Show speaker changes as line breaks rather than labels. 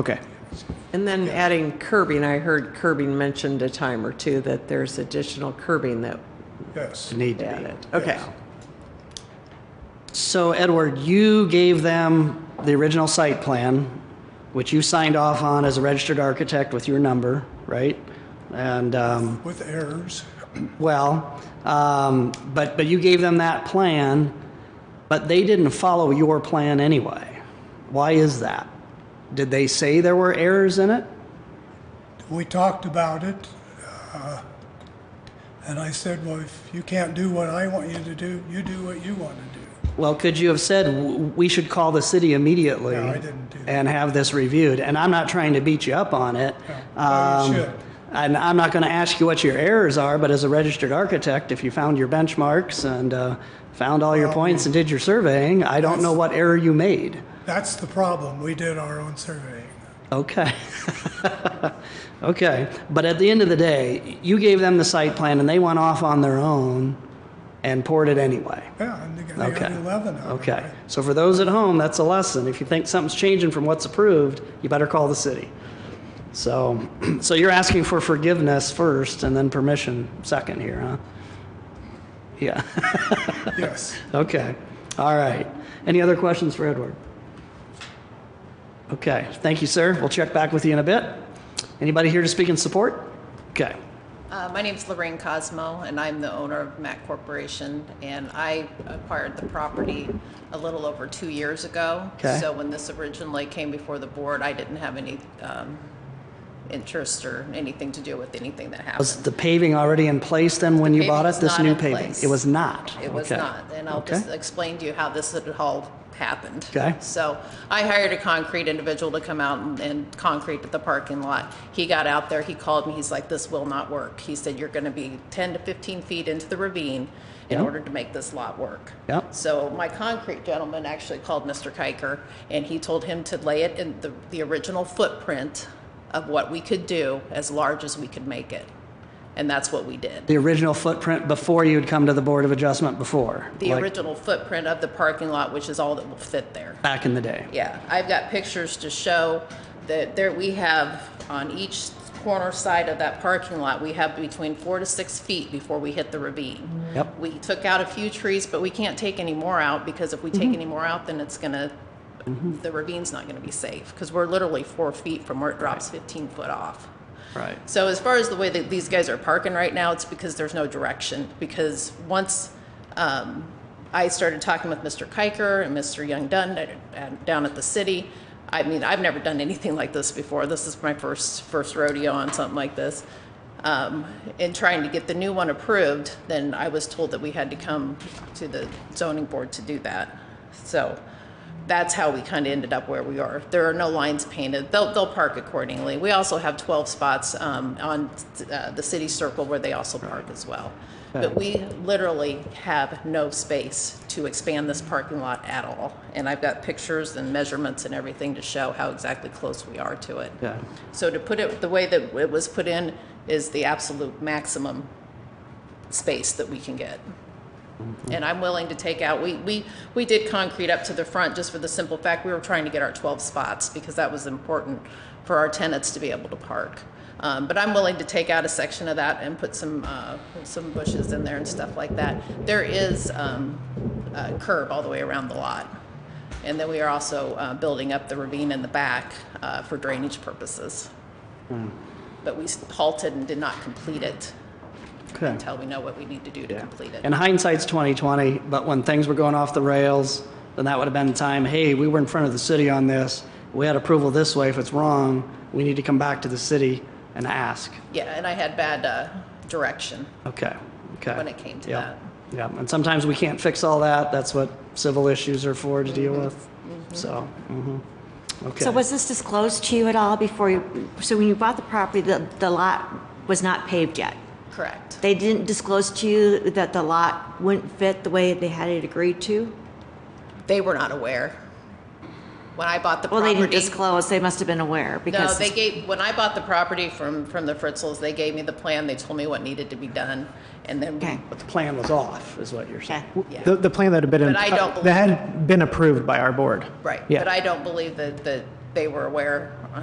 Okay.
And then adding curbing, I heard curbing mentioned a time or two, that there's additional curbing that
Yes.
Need to be.
added. Okay.
Yes.
So Edward, you gave them the original site plan, which you signed off on as a registered architect with your number, right? And, um,
With errors.
well, um, but, but you gave them that plan, but they didn't follow your plan anyway. Why is that? Did they say there were errors in it?
We talked about it. uh, And I said, well, if you can't do what I want you to do, you do what you want to do.
Well, could you have said, "W- we should call the city immediately?
No, I didn't do that.
And have this reviewed, and I'm not trying to beat you up on it.
No. Well, you
Um,
should.
And I'm not gonna ask you what your errors are, but as a registered architect, if you found your benchmarks and uh, found all your points
hmm.
and did your surveying, I don't know what error you made.
That's the problem. We did our own surveying.
Okay. Okay, but at the end of the day, you gave them the site plan, and they went off on their own and poured it anyway.
Yeah, and they got they got
Okay.
11 out of it.
Okay. So for those at home, that's a lesson. If you think something's changing from what's approved, you better call the city. So, so you're asking for forgiveness first and then permission second here, huh? Yeah.
Yes.
Okay. All right. Any other questions for Edward? Okay. Thank you, sir. We'll check back with you in a bit. Anybody here to speak in support? Okay.
Uh, My name's Lorraine Cosmo, and I'm the owner of Mac Corporation, and I acquired the property a little over two years ago.
Okay.
So when this originally came before the board, I didn't have any um, interest or anything to do with anything that
Was
happened.
the paving already in place then when you
paving
bought it?
was
This
not
new
in
paving?
place.
It was not?
It was
Okay.
not, and I'll
Okay.
just explain to you how this had all happened.
Okay.
So I hired a concrete individual to come out and, and concrete the parking lot. He got out there, he called me, he's like, this will not work. He said, you're gonna be ten to fifteen feet into the ravine in
Yeah.
order to make this lot work.
Yeah.
So my concrete gentleman actually called Mr. Kiker and he told him to lay it in the, the original footprint of what we could do, as large as we could make it. And that's what we did.
the original footprint before you'd come to the Board of Adjustment before?
the
like
original footprint of the parking lot, which is all that will fit there.
Back in the day?
Yeah, I've got pictures to show that there, we have on each corner side of that parking lot, we have between four to six feet before we hit the ravine.
Yep.
We took out a few trees, but we can't take any more out because if we take any more out, then it's gonna, the ravine's not gonna be safe because we're literally four feet from where it drops 15 foot off.
Right.
So as far as the way that these guys are parking right now, it's because there's no direction. Because once um, I started talking with Mr. Kiker and Mr. Young Dunn at- at- down at the city, I mean, I've never done anything like this before. This is my first first rodeo on something like this. Um, in trying to get the new one approved, then I was told that we had to come to the zoning board to do that. So that's how we kind of ended up where we are. There are no lines painted. They'll, they'll park accordingly. We also have 12 spots um, on uh, the city circle where they also park as well. But we literally have no space to expand this parking lot at all. And I've got pictures and measurements and everything to show how exactly close we are to it.
Yeah.
So to put it, the way that it was put in is the absolute maximum space that we can get. And I'm willing to take out, we, we, we did concrete up to the front just for the simple fact we were trying to get our 12 spots because that was important for our tenants to be able to park. Um, but I'm willing to take out a section of that and put some, uh, some bushes in there and stuff like that. There is, um, a curb all the way around the lot. And then we are also, uh, building up the ravine in the back, uh, for drainage purposes. But we halted and did not complete it
Okay.
until we know what we need to do to complete it.
And hindsight's 2020, but when things were going off the rails, then that would have been the time, hey, we were in front of the city on this. We had approval this way. If it's wrong, we need to come back to the city and ask.
Yeah, and I had bad uh, direction.
Okay, okay.
When it came to
Yeah. Yeah, and sometimes we can't fix all that. That's what civil issues are for to
Mm-hmm.
deal with. So, mhm. okay.
So was this disclosed to you at all before you, so when you bought the property, the, the lot was not paved yet?
Correct.
They didn't disclose to you that the lot wouldn't fit the way they had it agreed to?
They were not aware. When I bought the
Well, they
property.
didn't disclose, they must have been aware
No,
because.
they gave, when I bought the property from, from the Fritzels, they gave me the plan. They told me what needed to be done. And then,
Okay,
we-
But the plan was off, is what you're saying.
okay.
yeah,
The, the plan that had been,
But I don't
that had been approved by our board.
right.
Yeah.
But I don't believe that, that they were aware